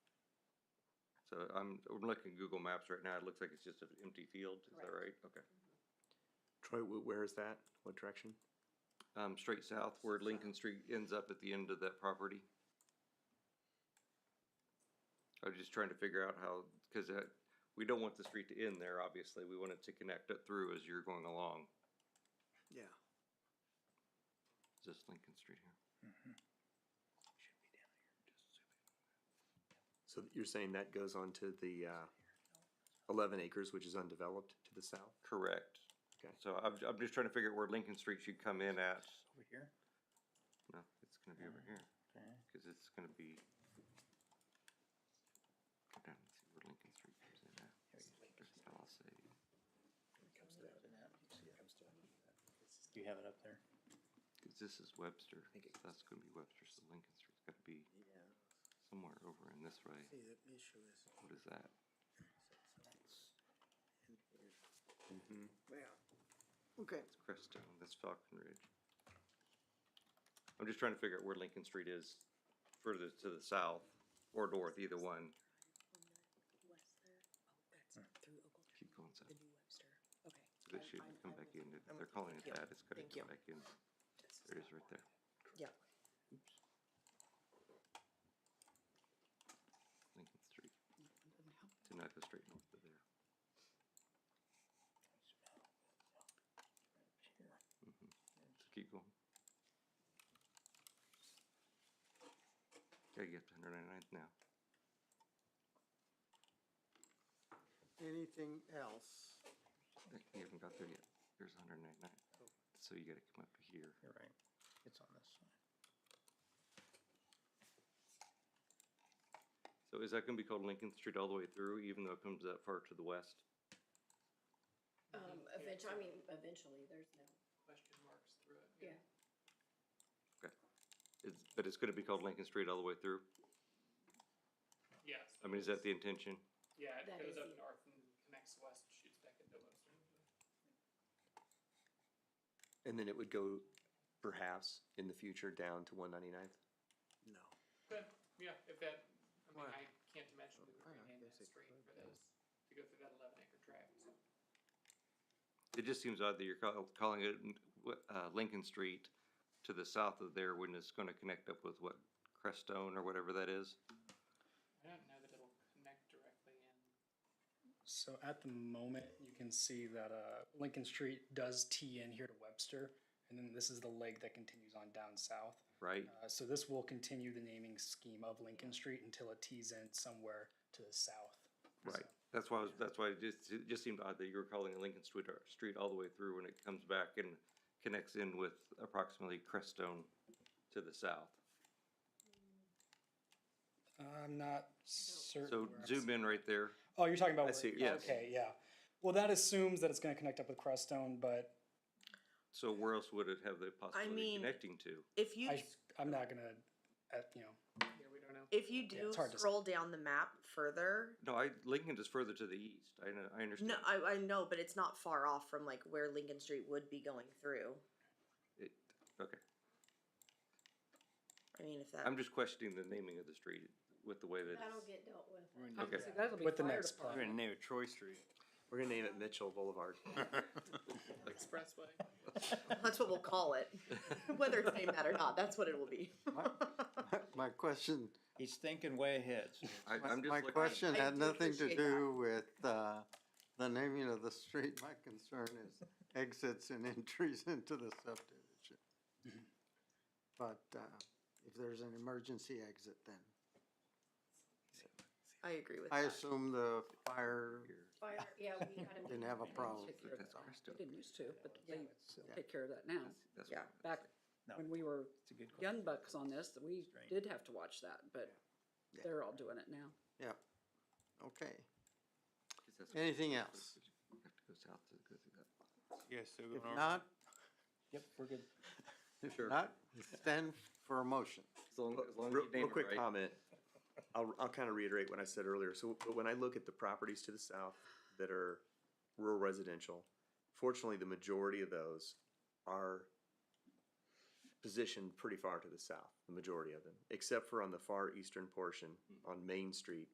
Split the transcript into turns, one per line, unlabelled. So I'm, I'm looking at Google Maps right now, it looks like it's just an empty field, is that right? Okay.
Troy, wh- where is that? What direction?
Um, straight south where Lincoln Street ends up at the end of that property. I was just trying to figure out how, cause that, we don't want the street to end there, obviously, we want it to connect it through as you're going along.
Yeah.
Is this Lincoln Street here?
So you're saying that goes on to the uh, 11 acres, which is undeveloped to the south?
Correct.
Okay.
So I'm, I'm just trying to figure out where Lincoln Street should come in at.
Over here?
No, it's gonna be over here,
Okay.
cause it's gonna be. Go down and see where Lincoln Street comes in at. That's how I'll say.
Do you have it up there?
Cause this is Webster, so that's gonna be Webster, so Lincoln Street's gotta be somewhere over in this way.
See, the issue is,
What is that? Mm-hmm.
well, okay,
It's Crestone, that's Falcon Ridge. I'm just trying to figure out where Lincoln Street is further to the south or north, either one.
West there. Oh, that's through Ogletree,
Keep going south.
the new Webster. Okay.
It should come back in. If They're calling it
you.
that. It's gotta
Thank you.
come back in. There it is right there.
Yeah.
Lincoln Street. Did not go straight north of there. Mhm. So keep going. Gotta get to 199th now.
anything else?
You haven't got there yet. Here's 199. So you gotta come up to here.
You're right. It's on this side.
So is that gonna be called Lincoln Street all the way through, even though it comes that far to the west?
Um, eventually, I mean, eventually, there's no.
question marks through it.
Yeah.
It's, but it's gonna be called Lincoln Street all the way through?
Yes.
I mean, is that the intention?
Yeah, it
That
goes
is
up
the-
north and connects west, shoots back into western.
And then it would go perhaps in the future down to 199th?
No.
But, yeah, if that, I mean,
Well,
I can't imagine we
well, I
would rename
guess
that
it
street
could
for
be.
those, to go through that eleven acre tract.
It just seems odd that you're call, calling it, uh, Lincoln Street to the south of there when it's gonna connect up with what, Crestone or whatever that is?
I don't know that it'll connect directly in.
So at the moment, you can see that uh, Lincoln Street does tee in here to Webster, and then this is the leg that continues on down south.
Right?
Uh, so this will continue the naming scheme of Lincoln Street until it tees in somewhere to the south.
Right. That's why, I was- that's why it just, it just seemed odd that you were calling it Lincoln Street, or Street all the way through when it comes back and connects in with approximately Crestone to the south.
I'm not certain.
So
where I'm
zoom in right there.
Oh, you're talking about.
I see
where-
what you're
saying.
Okay, yeah. Well, that assumes that it's going to connect up with Crestone, but
So where else would it have the possibility
mean-
of connecting to?
If you
I, I'm not going to, uh, you know.
Yeah, we don't know.
if you
Yeah,
do
it's hard to s-
scroll down the map further,
No, I, Lincoln is further to the east. I know, I understand.
no, uh, I, I know, but it's not far off from like where Lincoln Street would be going through.
It, okay.
I mean, if that
I'm just questioning the naming of the street with the way that it's.
That'll get dealt with.
Okay.
With the next part.
gonna name it Troy Street.
We're going to name it Mitchell Boulevard.
Expressway.
that's what we'll call it, whether it's named that or not, that's what it will be.
My question,
He's thinking way ahead.
I,
my
I'm just
my
looking-
question
I
had
do
nothing to
appreciate that.
do with, uh, the naming of the street. My concern is exits and entries into the subdivision. But, uh, if there's an emergency exit, then
I agree with
I
that.
assume the fire,
Fire, yeah, we gotta. make
Didn't have a
plans.
problem.
take care of
That's
that now.
Crestone.
They didn't used to, but they take care of that now.
That's
Yeah.
Back
what-
No.
when we were
It's a good question.
young bucks on this, that we
Right.
did have to watch that, but
Yeah.
they're all doing it now.
yeah, okay.
that's-
Anything else?
You have to go south to go through
Yes, so
If not,
Yep, we're good.
that.
not, stand for a motion.
As long, as long as
Real,
you name
real
it
quick
right.
comment. I'll, I'll kind of reiterate what I said earlier. So, but when I look at the properties to the south that are rural residential, fortunately, the majority of those are
Hmm.
positioned pretty far to the south, the majority of them, except for on the far eastern portion on Main Street,